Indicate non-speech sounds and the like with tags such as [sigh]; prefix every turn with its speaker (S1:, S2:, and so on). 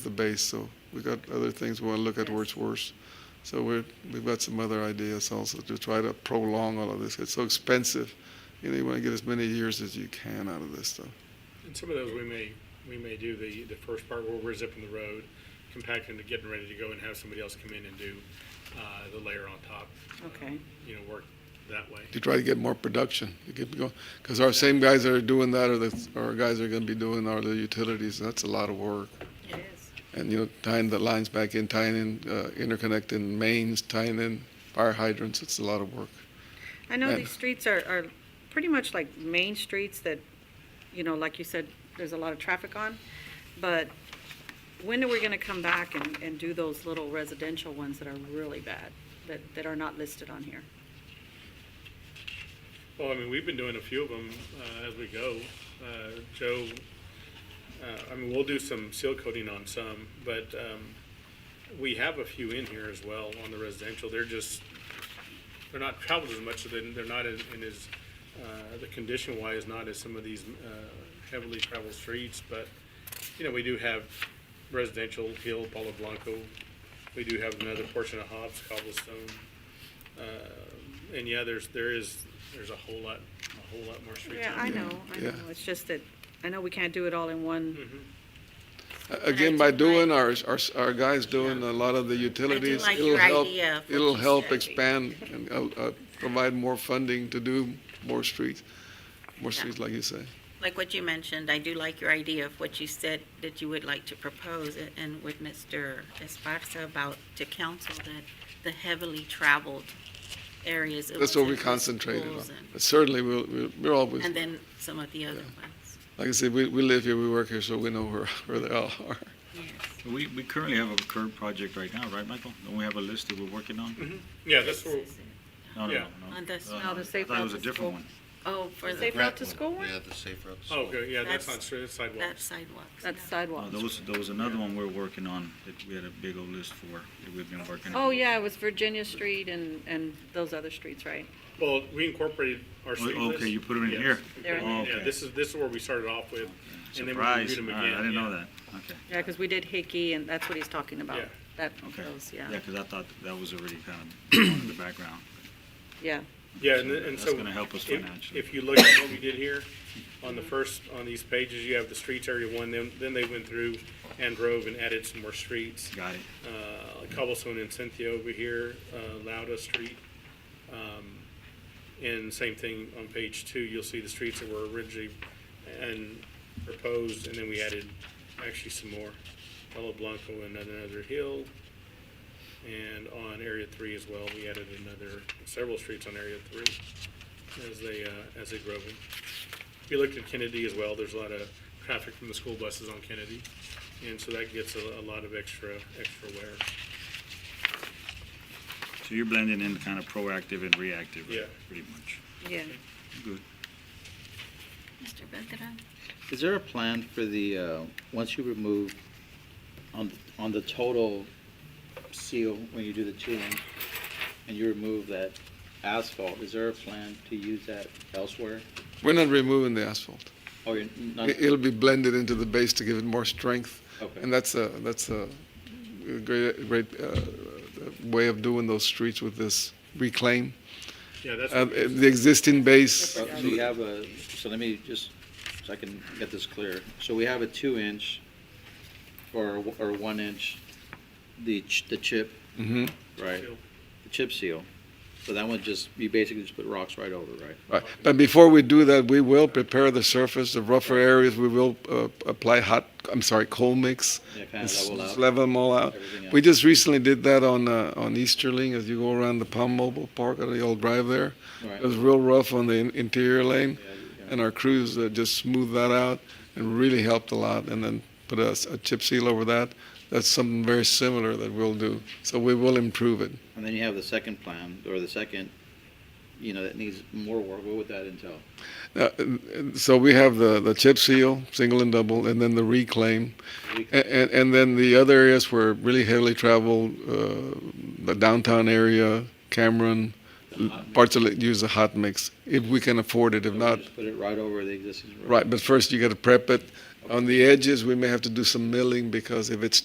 S1: the base. So we got other things we want to look at where it's worse. So we're, we've got some other ideas also to try to prolong all of this. It's so expensive. You know, you want to get as many years as you can out of this stuff.
S2: And some of those, we may, we may do the, the first part where we're zipping the road, compacting to getting ready to go and have somebody else come in and do, uh, the layer on top. uh,
S3: Okay.
S2: You know, work that way.
S1: To try to get more production, to get going, because our same guys that are doing that are the, our guys that are going to be doing our the utilities. That's a lot of work.
S3: It is.
S1: And, you know, tying the lines back in, tying in, uh, interconnecting mains, tying in fire hydrants. It's a lot of work.
S3: I know
S1: And-
S3: these streets are, are pretty much like main streets that, you know, like you said, there's a lot of traffic on. But when are we gonna come back and, and do those little residential ones that are really bad, that, that are not listed on here?
S2: Well, I mean, we've been doing a few of them, uh, as we go. Uh, Joe, uh, I mean, we'll do some seal coating on some, but, um, we have a few in here as well on the residential. They're just, they're not traveled as much, so they're, they're not in, in as, uh, the condition wise, not as some of these, uh, heavily traveled streets, but, you know, we do have residential, Hill, Palo Blanco. We do have another portion of Hobbs, Cobblestone. Uh, and yeah, there's, there is, there's a whole lot, a whole lot more streets.
S3: Yeah,
S2: out
S3: I
S2: there.
S3: know, I know. Hmm.
S1: Yeah.
S3: It's just that, I know we can't do it all in one.
S1: Again, by doing, our, our, our guys doing a lot of the utilities,
S4: like
S1: it'll
S4: your
S1: help,
S4: idea of what
S1: it'll
S4: you
S1: help
S4: said.
S1: expand and, uh, uh, provide more funding to do more streets, more streets like you say.
S4: Like what you mentioned, I do like your idea of what you said that you would like to propose a- and with Mr. Esparza about to council that the heavily traveled areas. it
S1: That's what
S4: wasn't
S1: we
S4: just
S1: concentrated on.
S4: schools and-
S1: But certainly, we'll, we'll- we're always,
S4: And then some of the other ones,
S1: like I said, we, we live here, we work here, so we know where, [laughs] where they all are.
S4: yes.
S5: We, we currently have a curb project right now, right, Michael? Don't we have a list that we're working on?
S2: Yeah, that's where,
S5: No, no,
S2: Mm-hmm. Yeah.
S5: no.
S4: On this-
S5: Uh,
S3: no, the safe
S5: I thought it was a
S3: routes to
S5: different
S3: school.
S5: one.
S4: Oh, for the,
S3: Safe route to school one?
S6: Yeah, the safe route to school.
S2: oh, good, yeah, that's
S4: That's-
S2: on street, that's sidewalks.
S4: that sidewalks.
S3: That's
S4: yeah.
S5: Uh,
S3: sidewalks.
S5: There was, there was another one we're working on that we had a big old list for that we've been working on.
S3: Oh, yeah, it was Virginia Street and, and those other streets, right?
S2: Well, we incorporated our
S5: Oh,
S2: street list.
S5: Okay, you put it in
S2: Yes.
S5: here?
S3: They're in
S5: Oh,
S2: Yeah,
S5: okay.
S2: this is, this is where we started off with, and then we
S5: Surprise.
S2: reviewed them
S5: All
S2: again.
S5: right, I didn't know
S2: yeah.
S5: that. Okay,
S3: Yeah, because we did Hickey, and that's what he's talking about.
S2: Yeah.
S3: That,
S5: okay.
S3: those,
S5: Yeah, because I thought that was already kind of [coughs] in the background.
S3: yeah.
S2: Yeah, and, and so.
S5: That's gonna help us
S2: if-
S5: financially.
S2: If you look at what we did here, on the first, on these pages, you have the streets area one, then, then they went through and drove and added some more streets.
S5: Got it.
S2: Uh, Cobblestone and Cynthia over here, uh, Lauda Street. Um, and same thing on page two, you'll see the streets that were originally and proposed, and then we added actually some more. Palo Blanco and another hill. And on area three as well, we added another, several streets on area three as they, uh, as they drove in. We looked at Kennedy as well, there's a lot of traffic from the school buses on Kennedy, and so that gets a, a lot of extra, extra wear,
S5: So you're blending in kind of proactive and reactive,
S2: Yeah.
S5: pretty much.
S3: Yeah.
S5: Good.
S4: Mr. Beltran?
S7: Is there a plan for the, uh, once you remove, on, on the total seal, when you do the two inch, and you remove that asphalt, is there a plan to use that elsewhere?
S1: We're not removing the asphalt.
S7: Or you're not,
S1: It- It'll be blended into the base to give it more strength.
S7: Okay.
S1: And that's a, that's a great, great uh, way of doing those streets with this reclaim.
S2: yeah, that's.
S1: Uh, The existing base,
S7: Uh, so you have a, so let me just, so I can get this clear. So we have a two inch or, or one inch, the, ch- the chip,
S1: Mhm.
S7: right? The chip seal. So that one just, you basically just put rocks right over, right?
S1: Right. But before we do that, we will prepare the surface, the rougher areas, we will uh, apply hot, I'm sorry, coal mix.
S7: Yeah, kinda
S1: and s-
S7: level out.
S1: Level them all out.
S7: Everything
S1: We
S7: out.
S1: just recently did that on, uh, on Easterling, as you go around the Palm Mobile Park, or the old drive there.
S7: Right.
S1: It was real rough on the in- interior lane,
S7: Yeah, yeah.
S1: and our crews uh, just smoothed that out and really helped a lot, and then put a s- a chip seal over that. That's something very similar that we'll do, so we will improve it.
S7: And then you have the second plan, or the second, you know, that needs more work, what would that entail?
S1: Uh, So we have the, the chip seal, single and double, and then the reclaim. And, and, and then the other areas were really heavily traveled, uh, the downtown area, Cameron, parts of it use a hot mix, if we can afford it, Mm. if
S7: So we
S1: not,
S7: Just put it right over the existing road?
S1: right, but first you gotta prep it. On the edges, we may have to do some milling, because if it's